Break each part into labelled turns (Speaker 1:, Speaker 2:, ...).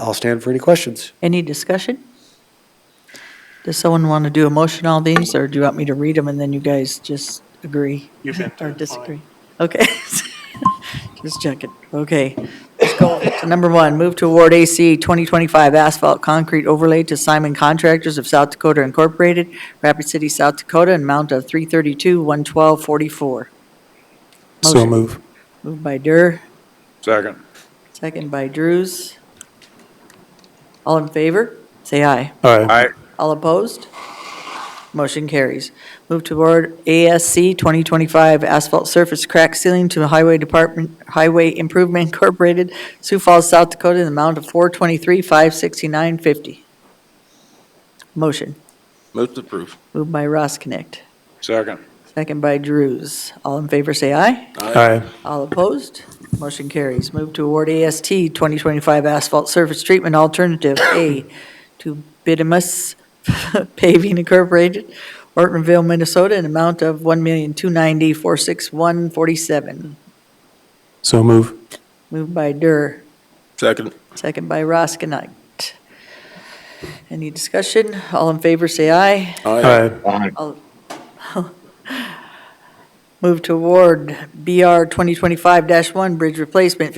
Speaker 1: I'll stand for any questions.
Speaker 2: Any discussion? Does someone want to do a motion on these, or do you want me to read them and then you guys just agree
Speaker 3: You've been
Speaker 2: or
Speaker 3: through it, fine.
Speaker 2: disagree? Okay. Just checking. Okay. Let's go to number one, move to award AC 2025 asphalt concrete overlay to Simon Contractors of South Dakota Incorporated, Rapid City, South Dakota, in amount of 332-11244.
Speaker 1: So
Speaker 2: Motion.
Speaker 1: move.
Speaker 2: Moved by Dur,
Speaker 4: Second.
Speaker 2: second by Drews. All in favor? Say aye.
Speaker 1: All right.
Speaker 4: Aye.
Speaker 2: All opposed? Motion carries. Move to award ASC 2025 asphalt surface crack ceiling to Highway Department, Highway Improvement Incorporated, Sioux Falls, South Dakota, in the amount of 423,569.50. Motion.
Speaker 5: Move to approve.
Speaker 2: Moved by Ross Connect,
Speaker 4: Second.
Speaker 2: second by Drews. All in favor, say aye.
Speaker 1: Aye.
Speaker 2: All opposed? Motion carries. Move to award AST 2025 Asphalt Surface Treatment Alternative A to Bidimus Paving Incorporated, Ortonville, Minnesota, an amount of $1,290,461.47.
Speaker 1: So move.
Speaker 2: Moved by Dur,
Speaker 5: Second.
Speaker 2: second by Roskinight. Any discussion? All in favor, say aye.
Speaker 1: Aye.
Speaker 2: Move to award BR 2025-1 Bridge Replacement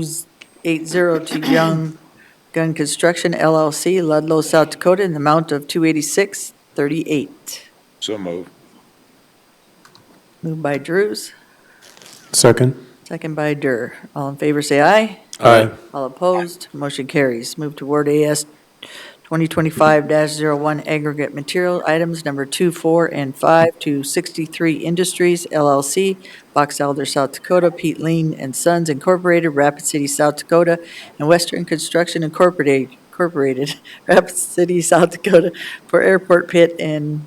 Speaker 2: 52-511-280 to Young Gun Construction LLC, Ludlow, South Dakota, in the amount of 28638.
Speaker 4: So move.
Speaker 2: Moved by Drews,
Speaker 1: Second.
Speaker 2: second by Dur. All in favor, say aye.
Speaker 1: Aye.
Speaker 2: All opposed, motion carries. Move to award AS 2025-01 aggregate material items number two, four, and five to 63 Industries LLC, Box Elder, South Dakota, Pete Lean and Sons Incorporated, Rapid City, South Dakota, and Western Construction Incorporated, Incorporated, Rapid City, South Dakota, for airport pit and,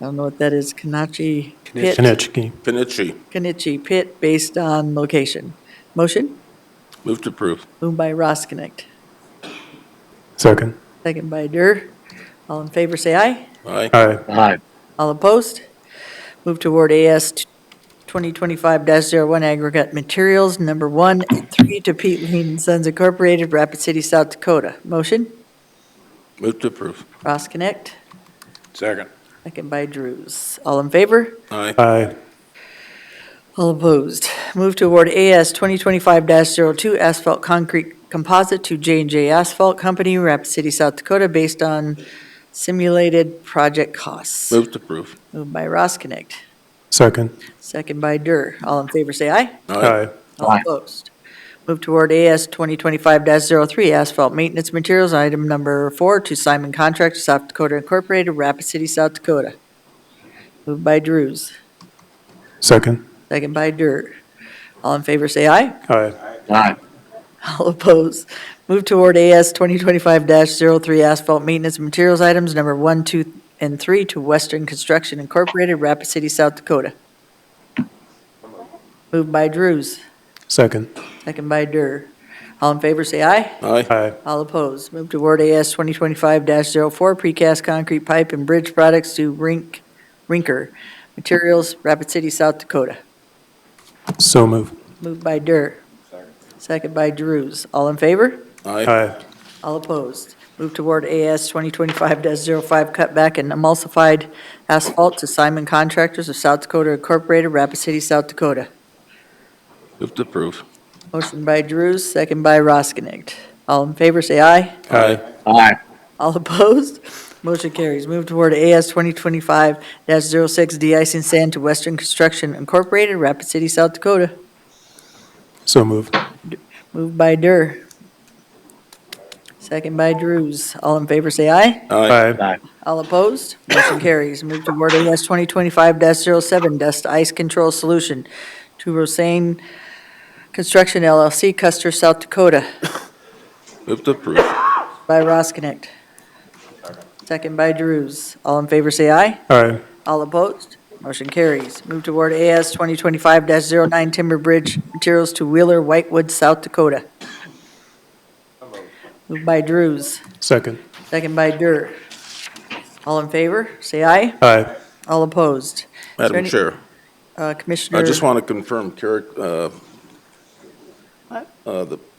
Speaker 2: I don't know what that is, Kanachi Pit,
Speaker 1: Konechki.
Speaker 5: Pinichi.
Speaker 2: Kanichi Pit, based on location. Motion?
Speaker 5: Move to approve.
Speaker 2: Moved by Ross Connect.
Speaker 1: Second.
Speaker 2: Second by Dur. All in favor, say aye.
Speaker 5: Aye.
Speaker 1: Aye.
Speaker 2: All opposed? Move toward AS 2025-01 Aggregate Materials, number one and three to Pete Lean and Sons Incorporated, Rapid City, South Dakota. Motion?
Speaker 5: Move to approve.
Speaker 2: Ross Connect.
Speaker 4: Second.
Speaker 2: Second by Drews. All in favor?
Speaker 5: Aye.
Speaker 1: Aye.
Speaker 2: All opposed. Move to award AS 2025-02 asphalt concrete composite to j and J Asphalt Company, Rapid City, South Dakota, based on simulated project costs.
Speaker 5: Move to approve.
Speaker 2: Moved by Ross Connect.
Speaker 1: Second.
Speaker 2: Second by Dur. All in favor, say aye.
Speaker 1: Aye.
Speaker 2: All opposed. Move toward AS 2025-03, asphalt maintenance materials, item number four, to Simon Contract, South Dakota Incorporated, Rapid City, South Dakota. Moved by Drews,
Speaker 1: Second.
Speaker 2: second by Dur. All in favor, say aye.
Speaker 1: Aye.
Speaker 2: All opposed. Move toward AS 2025-03, asphalt maintenance materials, items number one, two, and three, to Western Construction Incorporated, Rapid City, South Dakota. Moved by Drews,
Speaker 1: Second.
Speaker 2: second by Dur. All in favor, say aye.
Speaker 5: Aye.
Speaker 1: Aye.
Speaker 2: All opposed. Move to award AS 2025-04 precast concrete pipe and bridge products to Rink, Rinker Materials, Rapid City, South Dakota.
Speaker 1: So move.
Speaker 2: Moved by Dur. Second by Drews. All in favor?
Speaker 5: Aye.
Speaker 1: Aye.
Speaker 2: All opposed. Move toward AS 2025-05 cutback and emulsified asphalt to Simon Contractors of South Dakota Incorporated, Rapid City, South Dakota.
Speaker 5: Move to approve.
Speaker 2: Motion by Drews, second by Roskinick. All in favor, say aye.
Speaker 5: Aye.
Speaker 2: All opposed? Motion carries. Move toward AS 2025-06 de-icing sand to Western Construction Incorporated, Rapid City, South Dakota.
Speaker 1: So move.
Speaker 2: Moved by Dur. Second by Drews. All in favor, say aye.
Speaker 5: Aye.
Speaker 1: Aye.
Speaker 2: All opposed? Motion carries. Move toward AS 2025-07 dust ice control solution to Rosane Construction LLC, Custer, South Dakota,
Speaker 5: Move to approve.
Speaker 2: by Roskinick. Second by Drews. All in favor, say aye.
Speaker 1: Aye.
Speaker 2: All opposed? Motion carries. Move toward AS 2025-09 Timber Bridge Materials to Wheeler, Whitewood, South Dakota. Moved by Drews,
Speaker 1: Second.
Speaker 2: second by Dur. All in favor, say aye.
Speaker 1: Aye.
Speaker 2: All opposed?
Speaker 5: Madam
Speaker 2: any-
Speaker 5: Chair,
Speaker 2: Uh,
Speaker 5: I
Speaker 2: Commissioner?
Speaker 5: just want to confirm, Carrick, uh, uh, the